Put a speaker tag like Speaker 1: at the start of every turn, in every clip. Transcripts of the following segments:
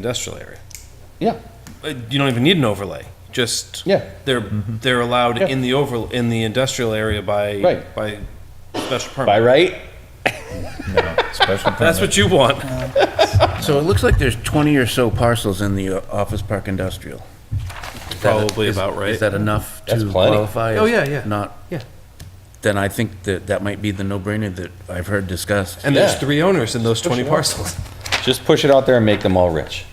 Speaker 1: industrial area.
Speaker 2: Yeah,
Speaker 1: Uh, You don't even need an overlay, just.
Speaker 2: Yeah. Mm-hmm.
Speaker 1: They're, they're allowed
Speaker 2: Yeah.
Speaker 1: in the over, in the industrial area by.
Speaker 2: Right.
Speaker 1: By special
Speaker 2: by
Speaker 1: permit.
Speaker 2: right?
Speaker 3: Special
Speaker 1: That's
Speaker 3: permit.
Speaker 1: what you want.
Speaker 4: So it looks like there's 20 or so parcels in the uh, office park industrial. Is that-
Speaker 1: Probably
Speaker 4: is-
Speaker 1: about right.
Speaker 4: Is that enough
Speaker 2: That's
Speaker 4: to
Speaker 2: plenty.
Speaker 4: qualify? as
Speaker 1: Oh, yeah, yeah.
Speaker 4: Not?
Speaker 1: Yeah.
Speaker 4: Then I think that that might be the no-brainer that I've heard discussed.
Speaker 1: And there's
Speaker 2: Yeah.
Speaker 1: three owners in those twenty
Speaker 2: it out.
Speaker 1: parcels.
Speaker 2: Just push it out there and make them all rich.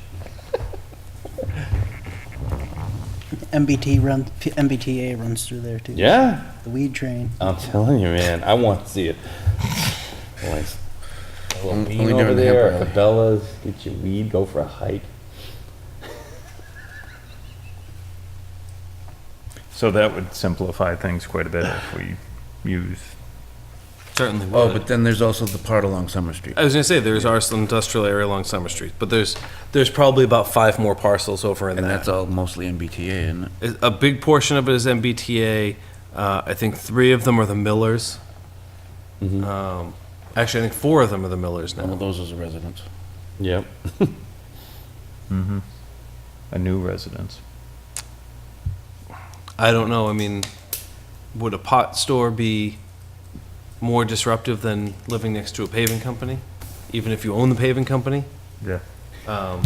Speaker 5: MBT runs, MBTA runs through there too.
Speaker 2: Yeah,
Speaker 5: The weed train.
Speaker 2: I'm telling you, man, I want to see it. Boys. A little
Speaker 4: Only
Speaker 2: bean
Speaker 4: during
Speaker 2: over there,
Speaker 4: Hamburg.
Speaker 2: Cabela's, get your weed, go for a hike.
Speaker 3: So that would simplify things quite a bit if we use,
Speaker 1: Certainly
Speaker 4: Oh, but then there's also the part along Summer Street.
Speaker 1: I was gonna say, there's our industrial area along Summer Street, but there's, there's probably about five more parcels over in
Speaker 4: And that's
Speaker 1: that.
Speaker 4: all mostly MBTA, isn't it?
Speaker 1: A big portion of it is MBTA. Uh, I think three of them are the Millers.
Speaker 2: Mm-hmm.
Speaker 1: Um, Actually, I think four of them are the Millers
Speaker 4: Well,
Speaker 1: now.
Speaker 4: those are the residents.
Speaker 2: Yep.
Speaker 3: mhm, a new residence.
Speaker 1: I don't know, I mean, would a pot store be more disruptive than living next to a paving company? Even if you own the paving company?
Speaker 3: Yeah.
Speaker 1: Um,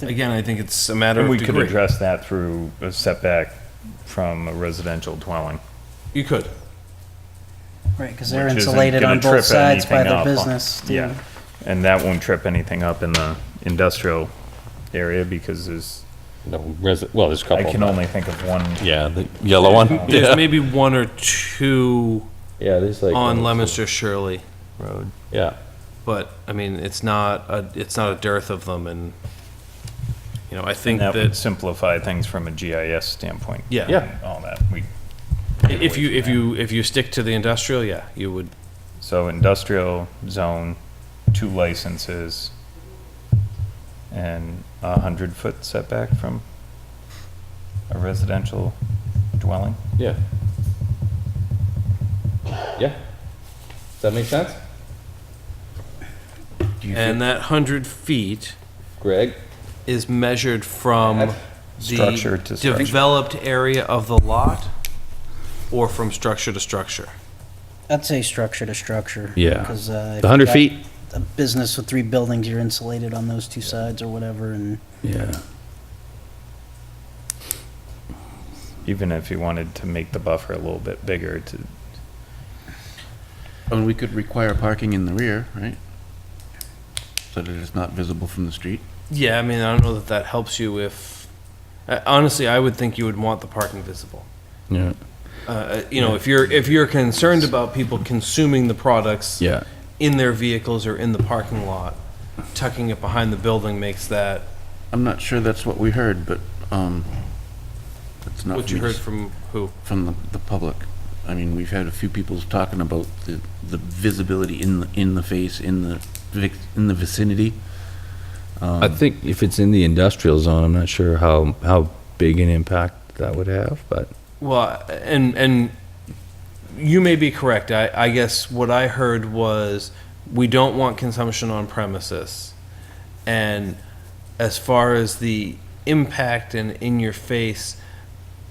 Speaker 1: Again, I think it's a matter
Speaker 3: And
Speaker 1: of
Speaker 3: we could
Speaker 1: degree.
Speaker 3: address that through a setback from a residential dwelling.
Speaker 1: You could.
Speaker 5: Right, because they're
Speaker 3: which isn't
Speaker 5: insulated
Speaker 3: gonna
Speaker 5: on
Speaker 3: trip
Speaker 5: both sides by
Speaker 3: anything
Speaker 5: their
Speaker 3: up on-
Speaker 5: business too.
Speaker 3: Yeah, and that won't trip anything up in the industrial area because there's,
Speaker 6: No, resi- well, there's a
Speaker 3: I
Speaker 6: couple.
Speaker 3: can only think of one.
Speaker 6: Yeah, the yellow one.
Speaker 1: There's maybe one or two
Speaker 2: Yeah, there's like.
Speaker 1: on Lemonster Shirley,
Speaker 3: Road.
Speaker 6: Yeah.
Speaker 1: but, I mean, it's not, a- it's not a dearth of them, and, you know, I think
Speaker 3: That would
Speaker 1: that
Speaker 3: simplify things from a GIS standpoint.
Speaker 1: Yeah.
Speaker 3: and
Speaker 1: Yeah.
Speaker 3: All that, we,
Speaker 1: if you, if you, if you stick to the industrial, yeah, you would,
Speaker 3: so industrial zone, two licenses, and a hundred-foot setback from a residential dwelling.
Speaker 2: Yeah. Yeah. Does that make sense?
Speaker 1: and that 100 feet
Speaker 2: Greg?
Speaker 1: is measured from
Speaker 3: Structure to
Speaker 1: the
Speaker 3: structure.
Speaker 1: developed area of the lot or from structure to structure?
Speaker 5: I'd say structure to structure.
Speaker 6: Yeah.
Speaker 5: Because, uh. if
Speaker 6: The 100
Speaker 5: you've got
Speaker 6: feet?
Speaker 5: A business with three buildings, you're insulated on those two sides or whatever and
Speaker 4: Yeah.
Speaker 3: Even if you wanted to make the buffer a little bit bigger to,
Speaker 4: And we could require parking in the rear, right? So that it's not visible from the street?
Speaker 1: Yeah, I mean, I don't know that that helps you if, uh, honestly, I would think you would want the parking visible.
Speaker 4: Yeah.
Speaker 1: Uh, You know, if you're, if you're concerned about people consuming the products
Speaker 4: Yeah.
Speaker 1: in their vehicles or in the parking lot, tucking it behind the building makes that,
Speaker 4: I'm not sure that's what we heard, but, um, that's not.
Speaker 1: what
Speaker 4: for
Speaker 1: you
Speaker 4: me to
Speaker 1: heard
Speaker 4: s-
Speaker 1: from who?
Speaker 4: from the, the public. I mean, we've had a few people talking about the, the visibility in, the in the face, in the, vic- in the vicinity.
Speaker 6: I think if it's in the industrial zone, I'm not sure how, how big an impact that would have, but
Speaker 1: Well, and and you may be correct. I, I guess what I heard was we don't want consumption on premises, and as far as the impact and in your face,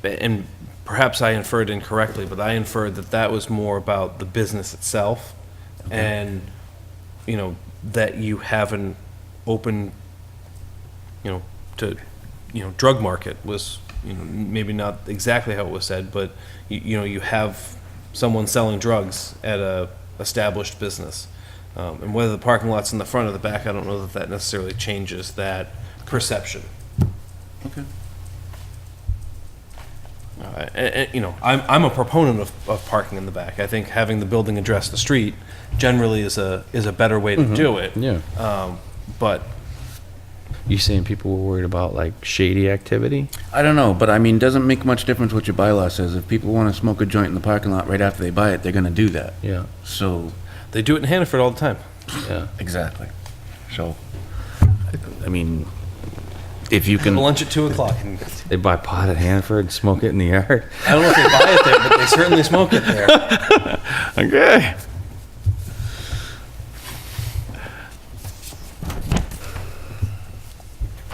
Speaker 1: and perhaps I inferred incorrectly, but I inferred that that was more about the business itself, and you know that you have an open, you know, to you know, drug market was, you know, maybe not exactly how it was said, but you, you know, you have someone selling drugs at a established business. Um, and whether the parking lot's in the front or the back, I don't know that that necessarily changes that perception.
Speaker 4: Okay.
Speaker 1: Uh, and, and, you know, I'm, I'm a proponent of, of parking in the back. I think having the building address the street generally is a, is a better way to do it.
Speaker 6: yeah.
Speaker 1: Um, but
Speaker 6: You saying people were worried about like shady activity?
Speaker 4: I don't know, but I mean, doesn't make much difference what your bylaw says. If people wanna smoke a joint in the parking lot right after they buy it, they're gonna do that.
Speaker 6: Yeah,
Speaker 4: So.
Speaker 1: they do it in Hannaford all the time.
Speaker 6: yeah.
Speaker 4: Exactly. So, I mean, if you can, I
Speaker 1: Lunch at two o'clock.
Speaker 6: They buy pot at Hanford, smoke it in the yard.
Speaker 1: I don't know if they buy it there, but they certainly smoke it there.
Speaker 3: okay,